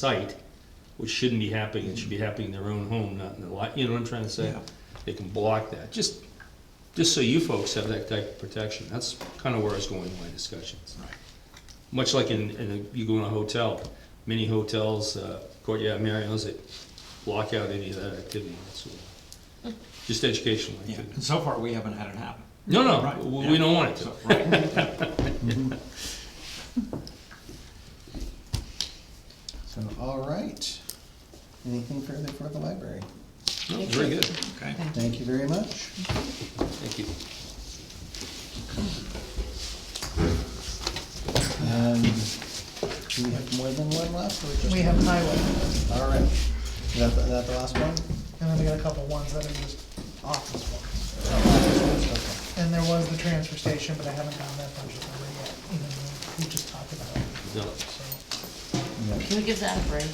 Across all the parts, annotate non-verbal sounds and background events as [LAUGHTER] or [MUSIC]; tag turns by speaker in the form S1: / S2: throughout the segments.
S1: site, which shouldn't be happening, it should be happening in their own home, not in the lot, you know what I'm trying to say?
S2: Yeah.
S1: They can block that, just, just so you folks have that type of protection, that's kinda where I was going in my discussions.
S2: Right.
S1: Much like in, in, a- you go in a hotel, many hotels, uh, Courtyard Marriotts, that block out any of that activity, that's all. Just educational
S2: Yeah,
S1: activity.
S2: and so far, we haven't had it happen.
S1: No,
S2: Right,
S1: no, we- we
S2: yeah.
S1: don't want it to.
S2: So, right.
S3: So, all right. Anything further for the library?
S1: No, Very good,
S2: Okay.
S3: Thank you very much.
S1: thank you.
S3: Um, Do we have more than one left or just? one?
S4: We have highway,
S3: All right. Is that, the- that the last one?
S4: and then we got a couple ones that are just office ones.
S3: Okay.
S4: And there was the transfer station, but I haven't gotten that budget number yet, even though we just talked about it,
S1: No.
S4: so.
S5: Can we give that a break?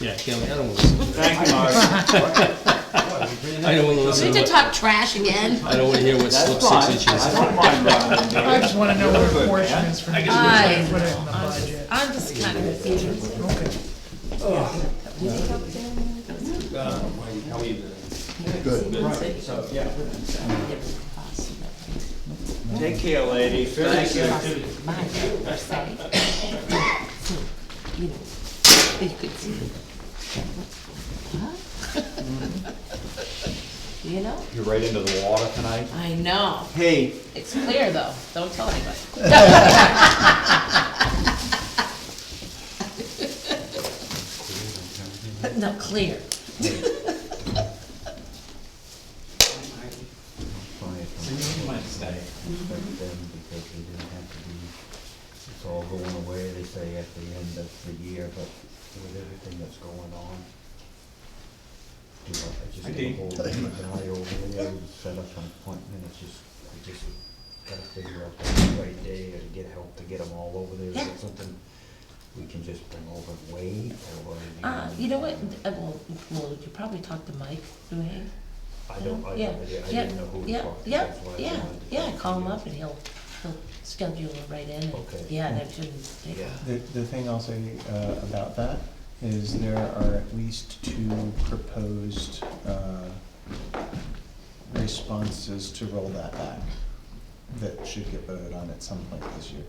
S1: Yeah, Kelly, I don't wanna listen to that,
S2: Thank you,
S1: [LAUGHS]
S2: Mark.
S1: I don't wanna
S5: Do
S1: listen
S5: we
S1: to
S5: have to
S1: what,
S5: talk trash again?
S1: I don't wanna hear what slips six inches.
S4: I just wanna know what a portion is for next year, so I can
S5: I-
S4: put it in the budget.
S5: I'm just kind of confused.
S4: Okay,
S2: Take care, lady. Thank you.
S5: Mine, per se. So, you know, you could see. Huh? You know?
S6: You're right into the water tonight.
S5: I know.
S6: Hey,
S5: It's clear though. Don't
S2: [LAUGHS]
S5: tell anybody. No, clear.
S6: so you might stay.
S7: respect them because they didn't have to be, it's all going away, they say at the end of the year, but with everything that's going on. You know, I just get a whole guy over there and set up an appointment, it's just, I just gotta figure out the right day or to get help to get them all over there. Is
S5: Yeah.
S7: it something we can just bring over and wait or? do you
S5: Uh,
S7: want-
S5: you know what, uh, well, well, you probably talked to Mike, Duane.
S7: I don't, I
S5: Yeah,
S7: don't, I
S5: yeah,
S7: didn't know who to
S5: yeah,
S7: talk to.
S5: Yeah,
S7: that's why I
S5: yeah,
S7: wanted to
S5: yeah,
S7: talk to
S5: call him
S7: you.
S5: up and he'll, he'll schedule it right in. and-
S7: Okay.
S5: Yeah, that shouldn't take,
S7: Yeah.
S3: The, the thing I'll say uh, about that is there are at least two proposed uh, responses to roll that back that should get voted on at some point this year.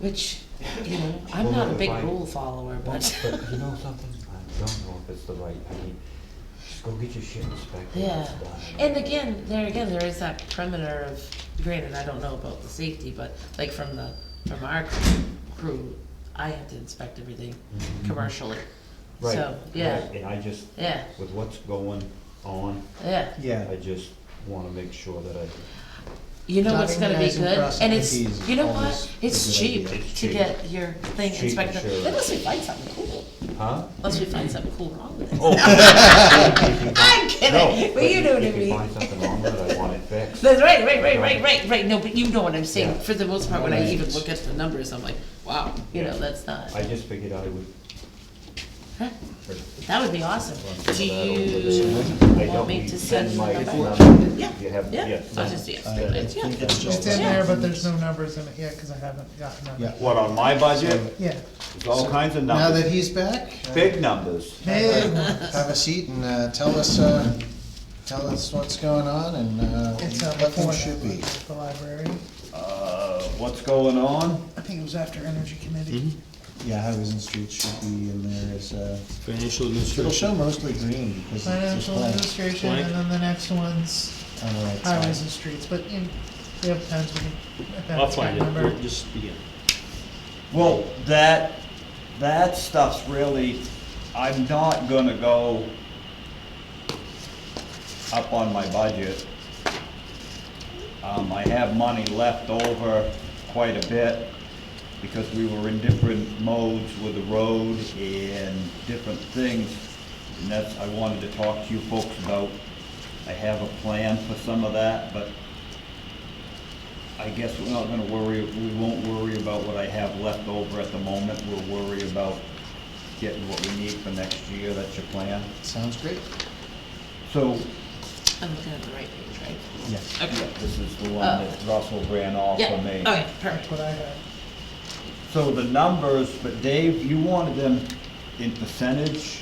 S5: which, you know, I'm not a big
S7: Well,
S5: rule follower,
S7: But
S5: but,
S7: you
S5: [LAUGHS]
S7: know something, I don't know if it's the right, I mean, just go get your shit inspected.
S5: yeah.
S7: it's done.
S5: And again, there again, there is that perimeter of, granted, I don't know about the safety, but like from the, from our crew, I have to inspect everything
S7: Mm-hmm.
S5: commercially.
S7: Right,
S5: So, yeah,
S7: right, And I just,
S5: yeah,
S7: with what's going on,
S5: yeah.
S3: Yeah.
S7: I just wanna make sure that I,
S5: You know what's gonna be
S3: Organizing
S5: good,
S3: process
S5: and it's,
S3: is
S5: you know
S3: always
S5: what,
S3: a
S5: it's
S3: good
S5: cheap
S3: idea.
S7: It's
S5: to
S7: cheap.
S5: get your thing
S7: Cheap,
S5: inspected,
S7: sure.
S5: unless we find something cool, [LAUGHS]
S7: huh?
S5: unless we find something cool wrong with it.
S7: Oh, if you find-
S5: [LAUGHS] I'm
S7: No,
S5: kidding,
S7: but
S5: but you know what I
S7: If you
S5: mean.
S7: find something wrong with it, I want it
S5: [LAUGHS]
S7: fixed.
S5: That's right, right, right, right, right, right, no, but you know what I'm saying,
S7: Yeah.
S5: for the most part, when I even
S3: Right.
S5: look at the numbers, I'm like, wow, you know,
S7: Yeah.
S5: that's not,
S7: I just figured I would.
S5: Huh? that would be awesome. Do you want me to send you the number? Yeah,
S7: You have,
S5: yeah,
S7: yeah.
S5: I'll just, yeah,
S3: I- I
S5: it's- yeah.
S3: think that's
S4: it's
S3: all.
S4: in there, but there's no numbers in it yet, cause I haven't gotten them.
S3: Yeah.
S6: What, on my budget?
S4: Yeah,
S6: There's all kinds of
S3: Now that
S6: numbers,
S3: he's back. uh,
S6: big numbers.
S3: Hey, have a seat and uh, tell us, uh, tell us what's going on and uh,
S4: it's uh
S3: what
S4: before
S3: things should be.
S4: that, the library,
S6: Uh, what's going on?
S4: I think it was after energy committee.
S3: Mm-hmm. Yeah, highways and streets should be in there as, uh,
S1: Financial
S3: it'll
S1: administration.
S3: show mostly green because it's
S4: Financial
S3: just
S4: administration, and then the next one's
S3: blank on the right side.
S4: highways and streets, but in, we have times we can. if
S1: I'll
S4: that's
S1: find it,
S4: got number.
S1: We'll just begin.
S6: Well, that, that stuff's really, I'm not gonna go up on my budget. Um, I have money left over quite a bit because we were in different modes with the road and different things. And that's, I wanted to talk to you folks about, I have a plan for some of that, but I guess we're not gonna worry, we won't worry about what I have left over at the moment, we'll worry about getting what we need for next year, that's your plan.
S3: Sounds great.
S6: So,
S5: I'm looking at the right page, right?
S3: Yes.
S6: yeah,
S5: Okay, Uh,
S6: this is the one that Russell ran off
S5: yeah,
S6: for me.
S5: okay,
S4: That's
S5: perfect.
S4: what I have.
S6: So the numbers, but Dave, you wanted them in percentage,